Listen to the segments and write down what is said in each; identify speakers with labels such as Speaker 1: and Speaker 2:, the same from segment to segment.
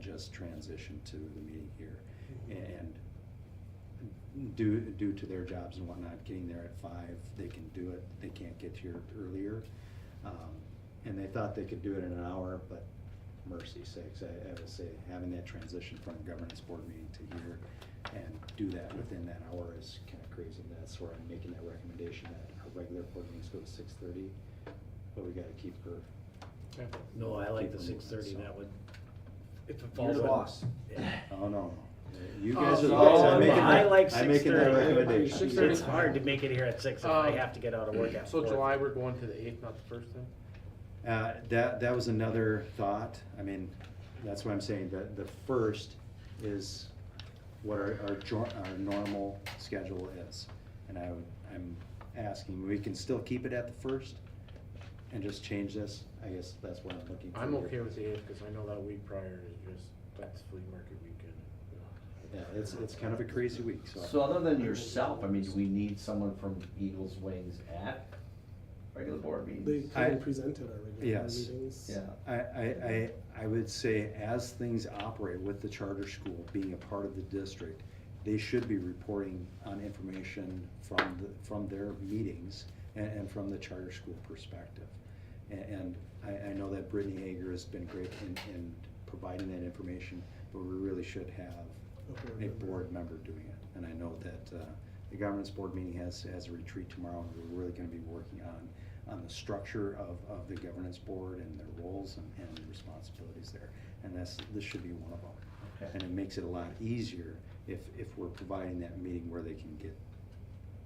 Speaker 1: just transition to the meeting here.
Speaker 2: Mm-hmm.
Speaker 1: And due, due to their jobs and whatnot, getting there at five, they can do it, they can't get here earlier. Um, And they thought they could do it in an hour, but mercy sakes, I, I will say, having that transition from governance board meeting to here and do that within that hour is kind of crazy. And That's where I'm making that recommendation that our regular board meetings go to six thirty, but we gotta keep her.
Speaker 2: Okay.
Speaker 3: No, I like the
Speaker 1: Keep them
Speaker 3: six thirty,
Speaker 1: moving, so.
Speaker 3: that would. If it
Speaker 2: You're
Speaker 3: falls
Speaker 2: the
Speaker 3: on-
Speaker 2: boss.
Speaker 3: Yeah.
Speaker 1: Oh, no. You
Speaker 2: Oh,
Speaker 1: guys are the
Speaker 2: so
Speaker 1: ones
Speaker 2: I'm-
Speaker 1: I'm making
Speaker 2: I
Speaker 1: that,
Speaker 3: like
Speaker 1: I'm making that
Speaker 3: 6:30.
Speaker 1: recommendation.
Speaker 2: 6:30
Speaker 3: It's hard to make it here at six if I
Speaker 2: Um,
Speaker 3: have to get out of work at
Speaker 2: So
Speaker 3: four.
Speaker 2: July, we're going to the eighth, not the first then?
Speaker 1: Uh, that, that was another thought. I mean, that's why I'm saying that the first is what our, our, jo- our normal schedule is. And I would, I'm asking, we can still keep it at the first and just change this? I guess that's what I'm looking for.
Speaker 2: I'm
Speaker 1: here.
Speaker 2: okay with the eighth, cause I know that week prior is just, that's flea market weekend.
Speaker 1: Yeah, it's, it's kind of a crazy week, so.
Speaker 4: So other than yourself, I mean, do we need someone from Eagles Wings at regular board
Speaker 5: They
Speaker 4: meetings?
Speaker 1: I-
Speaker 5: couldn't present at our regular board
Speaker 1: Yes.
Speaker 5: meetings.
Speaker 4: Yeah,
Speaker 1: I, I, I, I would say as things operate with the charter school being a part of the district, they should be reporting on information from the, from their meetings and, and from the charter school perspective. And, and I, I know that Brittany Hager has been great in, in providing that information, but we really should have
Speaker 5: a board
Speaker 1: a
Speaker 5: member.
Speaker 1: board member doing it. And I know that, uh, the governance board meeting has, has a retreat tomorrow, and we're really gonna be working on, on the structure of, of the governance board and their roles and, and responsibilities there. And that's, this should be one of them.
Speaker 4: okay.
Speaker 1: And it makes it a lot easier if, if we're providing that meeting where they can get,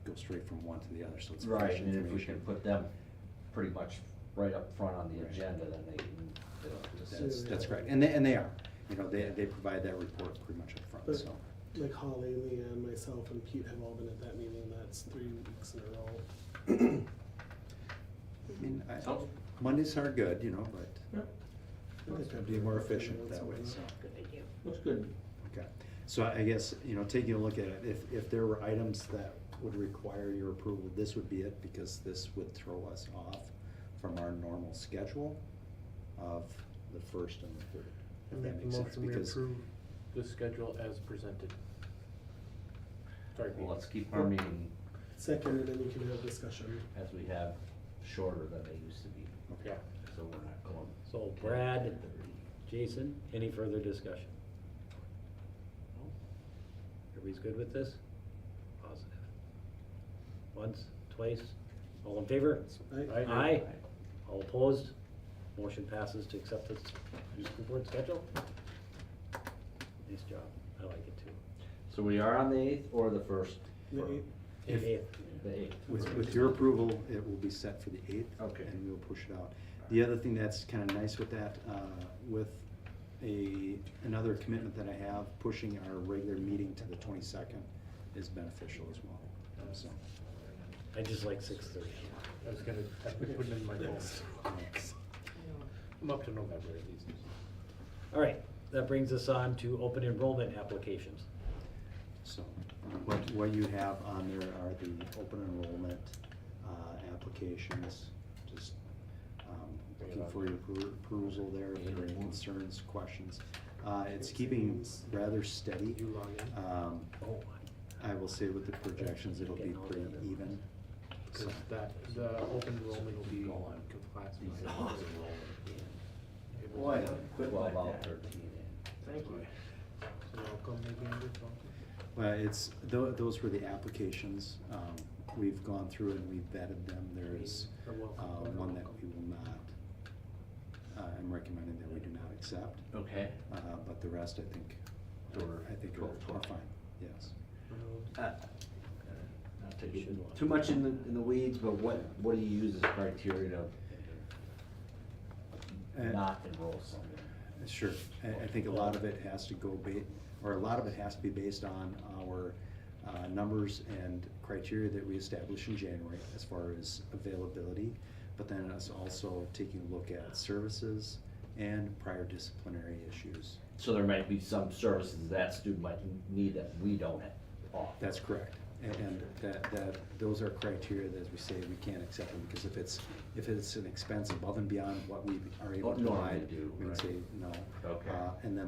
Speaker 1: go straight from one to the other, so it's fresh
Speaker 4: Right, and if we can
Speaker 1: information.
Speaker 4: put them pretty much right up front on the
Speaker 1: Right.
Speaker 4: agenda, then they can, they'll just.
Speaker 1: That's, that's right, and they, and they are, you know, they, they provide that report pretty much up front.
Speaker 5: But-
Speaker 1: so.
Speaker 5: Like Holly, Leanne, myself, and Pete have all been at that meeting. That's three weeks in a row.
Speaker 1: I mean, I-
Speaker 4: So-
Speaker 1: Mondays are good, you know, but
Speaker 5: I think
Speaker 1: it'd
Speaker 5: I'd
Speaker 1: be more
Speaker 5: prefer
Speaker 1: efficient
Speaker 5: once
Speaker 1: that
Speaker 5: a
Speaker 1: way,
Speaker 5: month.
Speaker 1: so.
Speaker 3: Good idea.
Speaker 4: Looks good.
Speaker 1: Okay, so I guess, you know, taking a look at it, if, if there were items that would require your approval, this would be it, because this would throw us off from our normal schedule of the first and the third. If that
Speaker 2: Make
Speaker 1: makes
Speaker 2: the
Speaker 1: sense,
Speaker 2: motion we
Speaker 1: because,
Speaker 2: approve the schedule as presented. Sorry, Pete.
Speaker 4: Well, let's keep our meeting
Speaker 5: Second, and then you can have discussion.
Speaker 4: as we have shorter than they used to be,
Speaker 2: Yeah,
Speaker 4: so we're not going.
Speaker 3: So Brad,
Speaker 4: 10:30.
Speaker 3: Jason, any further discussion? Everybody's good with this? Positive. Once, twice, all in favor?
Speaker 5: I,
Speaker 2: Aye.
Speaker 3: Aye. All opposed? Motion passes to accept this new school board schedule. Nice job. I like it too.
Speaker 4: So we are on the eighth or the first?
Speaker 5: The
Speaker 4: for-
Speaker 5: eighth.
Speaker 1: If-
Speaker 3: Eighth.
Speaker 4: The eighth.
Speaker 1: With, with your approval, it will be set for the eighth.
Speaker 4: Okay.
Speaker 1: And we'll push it out. The other thing that's kind of nice with that, uh, with a, another commitment that I have, pushing our regular meeting to the twenty-second is beneficial as well, so.
Speaker 3: I just like six thirty.
Speaker 2: I was gonna, I put it in my notes.
Speaker 1: Yes.
Speaker 2: I'm up to November at least.
Speaker 3: All right, that brings us on to open enrollment applications.
Speaker 1: So what, what you have on there are the open enrollment uh, applications, just um, looking for your appro- approval there, if there are any concerns, questions. Uh, It's keeping rather steady.
Speaker 2: Did you log in?
Speaker 1: Um,
Speaker 3: Oh,
Speaker 1: I will say with the projections, it'll be pretty even. So
Speaker 2: Cause that, the open enrollment will be classified.
Speaker 4: These are
Speaker 2: as
Speaker 4: open
Speaker 2: enrollment. It will-
Speaker 4: Boy, quit like that. Thank you.
Speaker 2: So welcome, maybe, Andrew, welcome.
Speaker 1: Well, it's, tho- those were the applications. Um, We've gone through and we've vetted them. There is
Speaker 2: Or
Speaker 1: uh,
Speaker 2: welcome, or
Speaker 1: one that
Speaker 2: welcome.
Speaker 1: we will not, uh, I'm recommending that we do not accept.
Speaker 4: Okay.
Speaker 1: Uh, but the rest, I think,
Speaker 4: Sure.
Speaker 1: I think
Speaker 4: Sure.
Speaker 1: are, are fine, yes.
Speaker 4: Uh, Not taking Too much in the, in the weeds, but what, what do you use as criteria to
Speaker 1: And- uh,
Speaker 4: not enroll someone?
Speaker 1: Sure, I, I think a lot of it has to go ba, or a lot of it has to be based on our, uh, numbers and criteria that we establish in January as far as availability. But then it's also taking a look at services and prior disciplinary issues.
Speaker 4: So there might be some services that student might need that we don't have. offer.
Speaker 1: That's correct. And, and that, that, those are criteria that, as we say, we can't accept them, because if it's, if it's an expense above and beyond what we are able
Speaker 4: What
Speaker 1: to
Speaker 4: normally
Speaker 1: provide,
Speaker 4: Oh, do,
Speaker 1: we would
Speaker 4: right.
Speaker 1: say no.
Speaker 4: Okay.
Speaker 1: Uh, And then